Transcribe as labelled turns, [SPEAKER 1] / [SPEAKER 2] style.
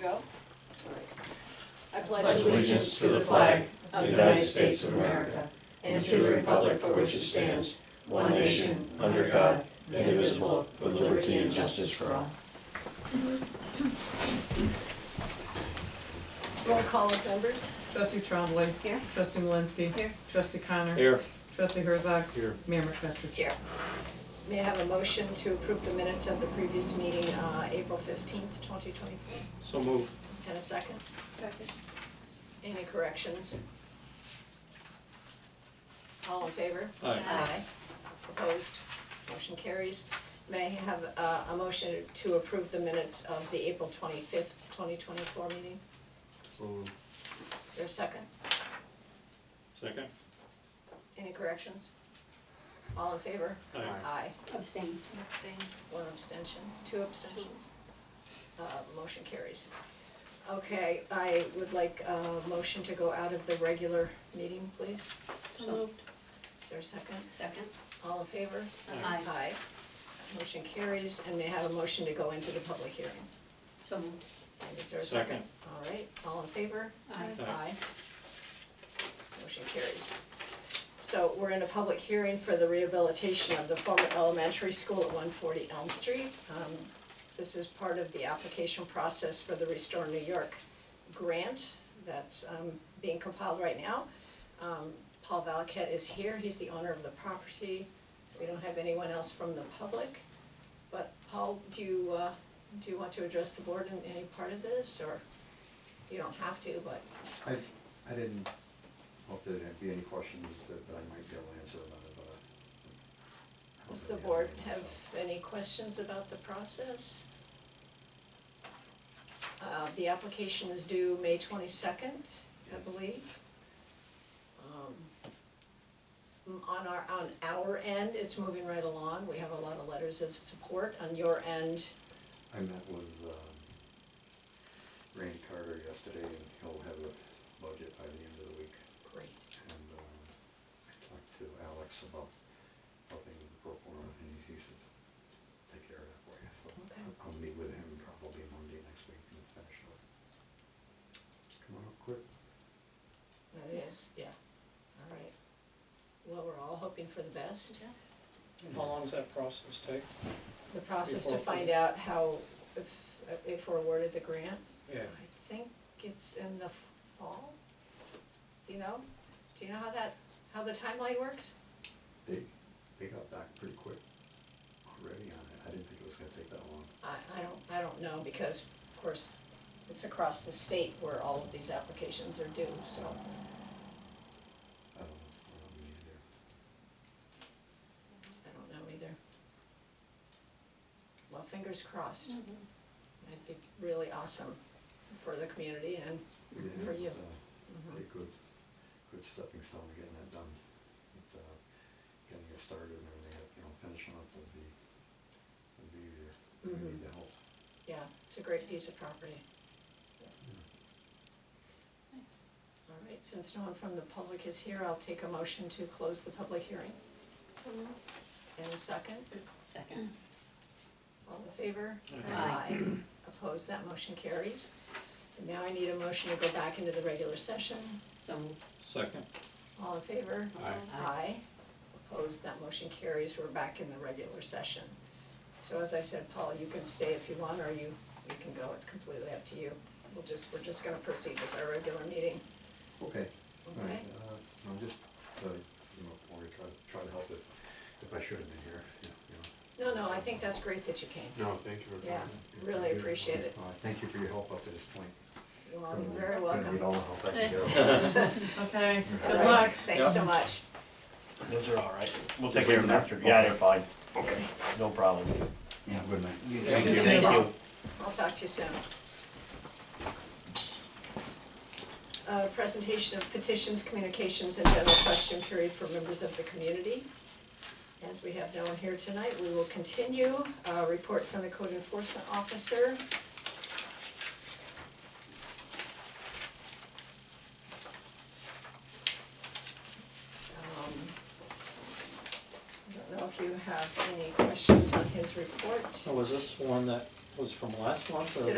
[SPEAKER 1] go. I
[SPEAKER 2] pledge allegiance to the flag of the United States of America and to the republic for which it stands, one nation, under God, indivisible, with liberty and justice for all.
[SPEAKER 1] Roll call of members.
[SPEAKER 3] Trustee Trombley.
[SPEAKER 1] Here.
[SPEAKER 3] Trustee Malinsky.
[SPEAKER 1] Here.
[SPEAKER 3] Trustee Connor.
[SPEAKER 4] Here.
[SPEAKER 3] Trustee Herzog.
[SPEAKER 4] Here.
[SPEAKER 3] Mayor McFetrich.
[SPEAKER 1] Here. May I have a motion to approve the minutes of the previous meeting, uh, April fifteenth, twenty twenty-four?
[SPEAKER 4] So move.
[SPEAKER 1] And a second? Second. Any corrections? All in favor?
[SPEAKER 4] Aye.
[SPEAKER 1] Opposed? Motion carries. May I have uh, a motion to approve the minutes of the April twenty-fifth, twenty twenty-four meeting?
[SPEAKER 4] So moved.
[SPEAKER 1] Is there a second?
[SPEAKER 4] Second?
[SPEAKER 1] Any corrections? All in favor?
[SPEAKER 4] Aye.
[SPEAKER 1] Aye.
[SPEAKER 5] Abstain.
[SPEAKER 1] One abstention, two abstentions. Uh, motion carries. Okay, I would like a motion to go out of the regular meeting, please.
[SPEAKER 5] So moved.
[SPEAKER 1] Is there a second?
[SPEAKER 5] Second.
[SPEAKER 1] All in favor?
[SPEAKER 5] Aye.
[SPEAKER 1] Aye. Motion carries, and may I have a motion to go into the public hearing?
[SPEAKER 5] So moved.
[SPEAKER 1] And is there a second?
[SPEAKER 4] Second.
[SPEAKER 1] All right, all in favor?
[SPEAKER 5] Aye.
[SPEAKER 4] Aye.
[SPEAKER 1] Motion carries. So we're in a public hearing for the rehabilitation of the former elementary school at one forty Elm Street. Um, This is part of the application process for the Restore New York grant that's um, being compiled right now. Um, Paul Valaket is here, he's the owner of the property. We don't have anyone else from the public. But Paul, do you, uh, do you want to address the board in any part of this, or you don't have to, but
[SPEAKER 6] I, I didn't hope there would be any questions that that I might be able to answer about it, but. I- I don't
[SPEAKER 1] Does the
[SPEAKER 6] really have
[SPEAKER 1] board
[SPEAKER 6] anything,
[SPEAKER 1] have
[SPEAKER 6] so.
[SPEAKER 1] any questions about the process? Uh, the application is due May twenty-second, I
[SPEAKER 6] Yes.
[SPEAKER 1] believe. Um, On our, on our end, it's moving right along, we have a lot of letters of support, on your end,
[SPEAKER 6] I met with, um, Randy Carter yesterday, and he'll have the budget by the end of the week.
[SPEAKER 1] great,
[SPEAKER 6] And, um, I talked to Alex about helping with the pro forma, and he said, take care of that for you, so.
[SPEAKER 1] Okay.
[SPEAKER 6] I'll- I'll meet with him probably Monday next week and finish it. Just come on up quick.
[SPEAKER 1] that is, yeah, all right. Well, we're all hoping for the best.
[SPEAKER 4] How long does that process take?
[SPEAKER 1] The process to
[SPEAKER 4] Before-
[SPEAKER 1] find out how, if, if we're awarded the grant,
[SPEAKER 4] Yeah.
[SPEAKER 1] I think it's in the fall, do you know? Do you know how that, how the timeline works?
[SPEAKER 6] They, they got back pretty quick already on it, I didn't think it was gonna take that long.
[SPEAKER 1] I, I don't, I don't know, because of course, it's across the state where all of these applications are due, so.
[SPEAKER 6] I don't, I don't mean either.
[SPEAKER 1] I don't know either. Well, fingers crossed. That'd be really awesome for the community and, Mm-hmm. For you. Mm-hmm.
[SPEAKER 6] Yeah, but, uh, Be a good, good stepping stone to getting that done. But, uh, getting it started and everything, you know, finishing up would be, would be easier. We
[SPEAKER 1] Mhm.
[SPEAKER 6] need the help.
[SPEAKER 1] yeah, it's a great piece of property. All right, since no one from the public is here, I'll take a motion to close the public hearing.
[SPEAKER 5] So moved.
[SPEAKER 1] In a second,
[SPEAKER 5] Second.
[SPEAKER 1] all in favor?
[SPEAKER 5] Aye.
[SPEAKER 1] Opposed, that motion carries. And now I need a motion to go back into the regular session.
[SPEAKER 5] So moved.
[SPEAKER 4] Second?
[SPEAKER 1] All in favor?
[SPEAKER 4] Aye.
[SPEAKER 1] Aye. Opposed, that motion carries, we're back in the regular session. So as I said, Paul, you can stay if you want, or you, you can go, it's completely up to you. We'll just, we're just gonna proceed with our regular meeting,
[SPEAKER 6] Okay, all
[SPEAKER 1] okay?
[SPEAKER 6] right, uh, I'm just, uh, you know, wanted to try, try to help if, if I should have been here, you know, you know.
[SPEAKER 1] No, no, I think that's great that you came.
[SPEAKER 7] No, thank you for
[SPEAKER 1] Yeah,
[SPEAKER 7] coming.
[SPEAKER 1] really appreciate it.
[SPEAKER 6] Uh, thank you for your help up to this point.
[SPEAKER 1] You all
[SPEAKER 6] Really,
[SPEAKER 1] are very
[SPEAKER 6] really
[SPEAKER 1] welcome.
[SPEAKER 6] Need all the help I can get.
[SPEAKER 3] Okay,
[SPEAKER 1] All
[SPEAKER 3] good
[SPEAKER 1] right,
[SPEAKER 3] luck.
[SPEAKER 1] Thanks so much.
[SPEAKER 8] Those are all right. We'll
[SPEAKER 6] Just
[SPEAKER 8] take care of
[SPEAKER 6] leave
[SPEAKER 8] them
[SPEAKER 6] them
[SPEAKER 8] after.
[SPEAKER 6] there?
[SPEAKER 8] Yeah, they're fine.
[SPEAKER 6] Okay.
[SPEAKER 8] No problem.
[SPEAKER 6] Yeah, good night.
[SPEAKER 4] Thank you.
[SPEAKER 8] Thank you.
[SPEAKER 1] I'll talk to you soon. Uh, presentation of petitions, communications, and general question period for members of the community. As we have no one here tonight, we will continue, uh, report from the code enforcement officer. Um, I don't know if you have any questions on his report.
[SPEAKER 4] So was this one that was from last month or?
[SPEAKER 1] Did